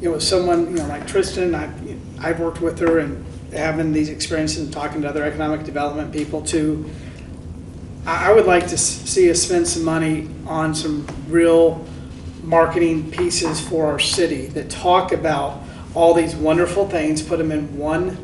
it was someone, you know, like Tristan, I, I've worked with her and having these experiences and talking to other economic development people too. I, I would like to s- see us spend some money on some real marketing pieces for our city that talk about all these wonderful things, put them in one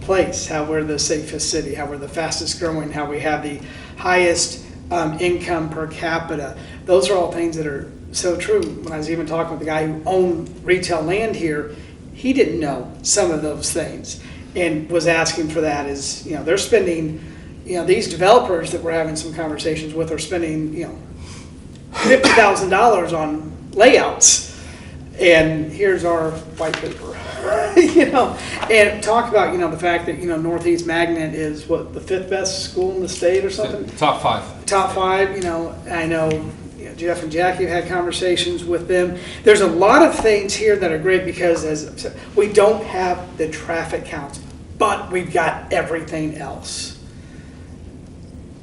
place, how we're the safest city, how we're the fastest growing, how we have the highest um, income per capita. Those are all things that are so true. When I was even talking with the guy who owned retail land here, he didn't know some of those things and was asking for that is, you know, they're spending, you know, these developers that we're having some conversations with are spending, you know, fifty thousand dollars on layouts, and here's our white paper. you know, and talk about you know the fact that you know Northeast Magnet is what the fifth best school in the state or something, Top five. top five. You know, I know you know, Jeff and Jackie have had conversations with them. There's a lot of things here that are great because as I said, we don't have the traffic counts, but we've got everything else.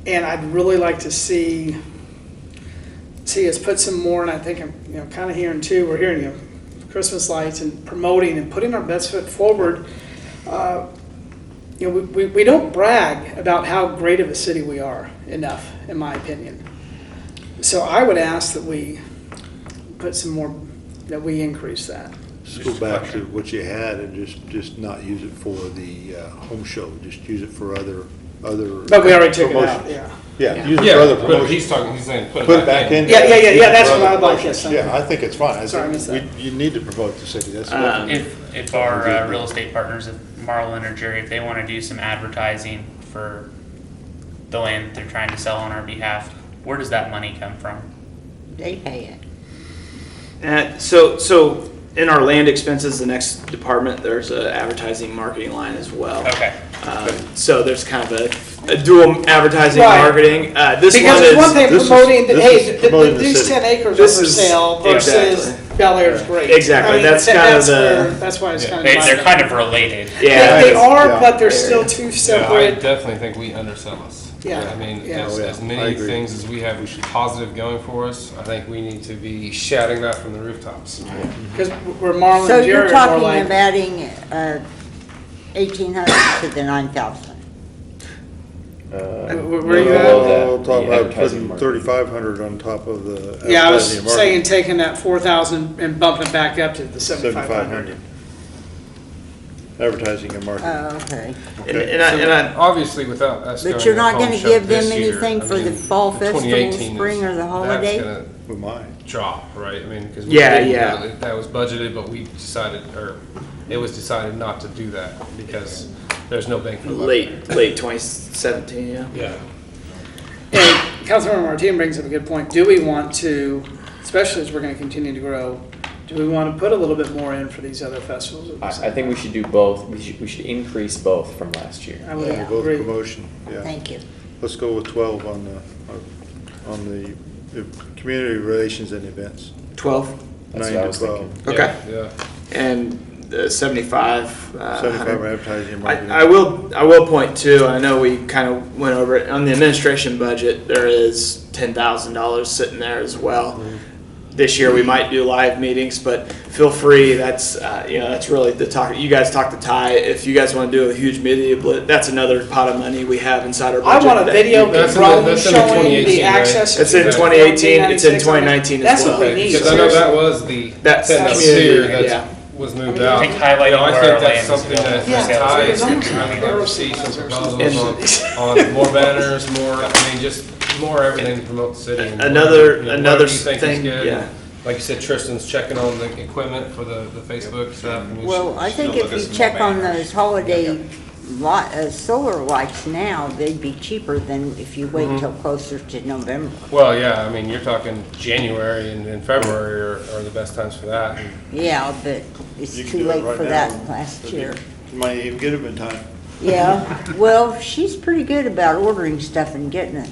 And I'd really like to see see us put some more, and I think I'm, you know, kind of hearing too, we're hearing, you know, Christmas lights and promoting and putting our best foot forward. Uh, You know, we, we, we don't brag about how great of a city we are enough, in my opinion. So I would ask that we put some more, that we increase that. Just go back to what you had and just, just not use it for the uh, home show, just use it for other, other. But we already took it out, promotions. yeah. Yeah, use it for other Yeah, but promotions. he's talking, he's saying, put Put it back in. Yeah, yeah, yeah, Use it yeah, that's for what other I'd like, promotions. yes, Yeah, I think it's fine. I Sorry, I missed Uh, think we- You need to promote the city, that's Um, what. Uh, If, if our uh, real estate partners, if Marlin or Jerry, if they want to do some advertising for the land they're trying to sell on our behalf, where does that money come from? They pay it. Uh, so, so in our land expenses, the next department, there's a advertising marketing line as well. Okay. Um, so there's kind of a, a dual advertising Right. marketing. Uh, this Because one it's is one thing this is- promoting, that, this hey, is th- promoting th- the these city. ten acres are This for is- sale versus exactly. Bel Air's great. Exactly, I mean, that's that- kind of that's the- where- That's why it's kind of. They, they're divided. kind of related. yeah. They, they are, Yeah. but they're still two Yeah, I separate. definitely think we undersell us. Yeah. I mean, Yeah. as, Oh, yeah. as I many agree. things as we have positive going for us, I think we need to be shouting that from the rooftops. Because we're Marlin So and Jared you're are more talking like- about adding eighteen hundred to the nine thousand? Where- where you at? We'll talk the about advertising putting market. thirty-five hundred on top of Uh, the. Yeah, I was advertising market. saying taking that four thousand and bumping it back up to the seventy-five Seventy-five hundred. hundred. Advertising and Uh, marketing. Oh, okay. And, and, I, and I, Obviously, without us going But to you're the not home gonna show give them this year, anything I for the mean, fall the festival, 2018 spring, is- or the that's holiday? gonna We might. Drop, right? I mean, because Yeah, yeah. That was budgeted, but we decided, or it was decided not to do that because there's no bank for the buck. late, late 2017, yeah. Yeah. And Councilmember Martin brings up a good point. Do we want to, especially as we're gonna continue to grow, do we want to put a little bit more in for these other festivals? at the I, I same think we should do both. We should, we should increase both from last time? year. I would Yeah, Both agree. promotion, yeah. Thank you. Let's go with twelve on the, on the, the community relations and events, 12. That's nine what I to was twelve. thinking. Okay. Yeah. And uh, 75. Uh, 75 100. advertising and marketing. I, I will I will point too. I know we kind of went over it on the administration budget. There is ten thousand dollars sitting there as well. Mm-hmm. This year we might do live meetings, but feel free. That's uh, you know that's really the talk. You guys talk to Ty if you guys want to do a huge media. Blit, that's another pot of money we have inside our budget. I want a that video you- of That's in the- Rome that's in the showing 2018, the right? access. It's in 2018, it's in 2019 as well. That's what we need. Because I know that was the That's- sentence that's- here yeah. that was moved out. I think highlighting You know, I where think our that's land is something that available. that Yeah. ties, Yeah. I mean, I would see some proposals on, on more banners, more, I mean, just more everything to promote the city. and whatever, Another- you know, another whatever you think is thing, good. yeah. Like you said, Tristan's checking on the equipment for the, the Facebook stuff. mean, Well, I she's still think if looking you for check more on banners. those holiday lot, uh, solar lights now, they'd be cheaper than if you wait till closer to November. Well, yeah, I mean, you're talking January and, and February are, are the best times for that. and Yeah, but it's You can too do it late right for now. that last year. You Might even get them in time. Yeah, well, she's pretty good about ordering stuff and getting it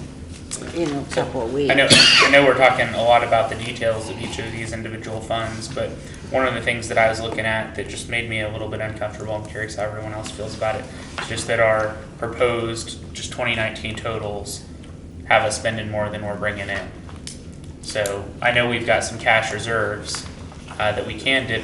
in a couple of weeks. I know, I know we're talking a lot about the details of each of these individual funds, but one of the things that I was looking at that just made me a little bit uncomfortable, I'm curious how everyone else feels about it, is just that our proposed, just twenty nineteen totals have us spending more than we're bringing in. So I know we've got some cash reserves, uh, that we can dip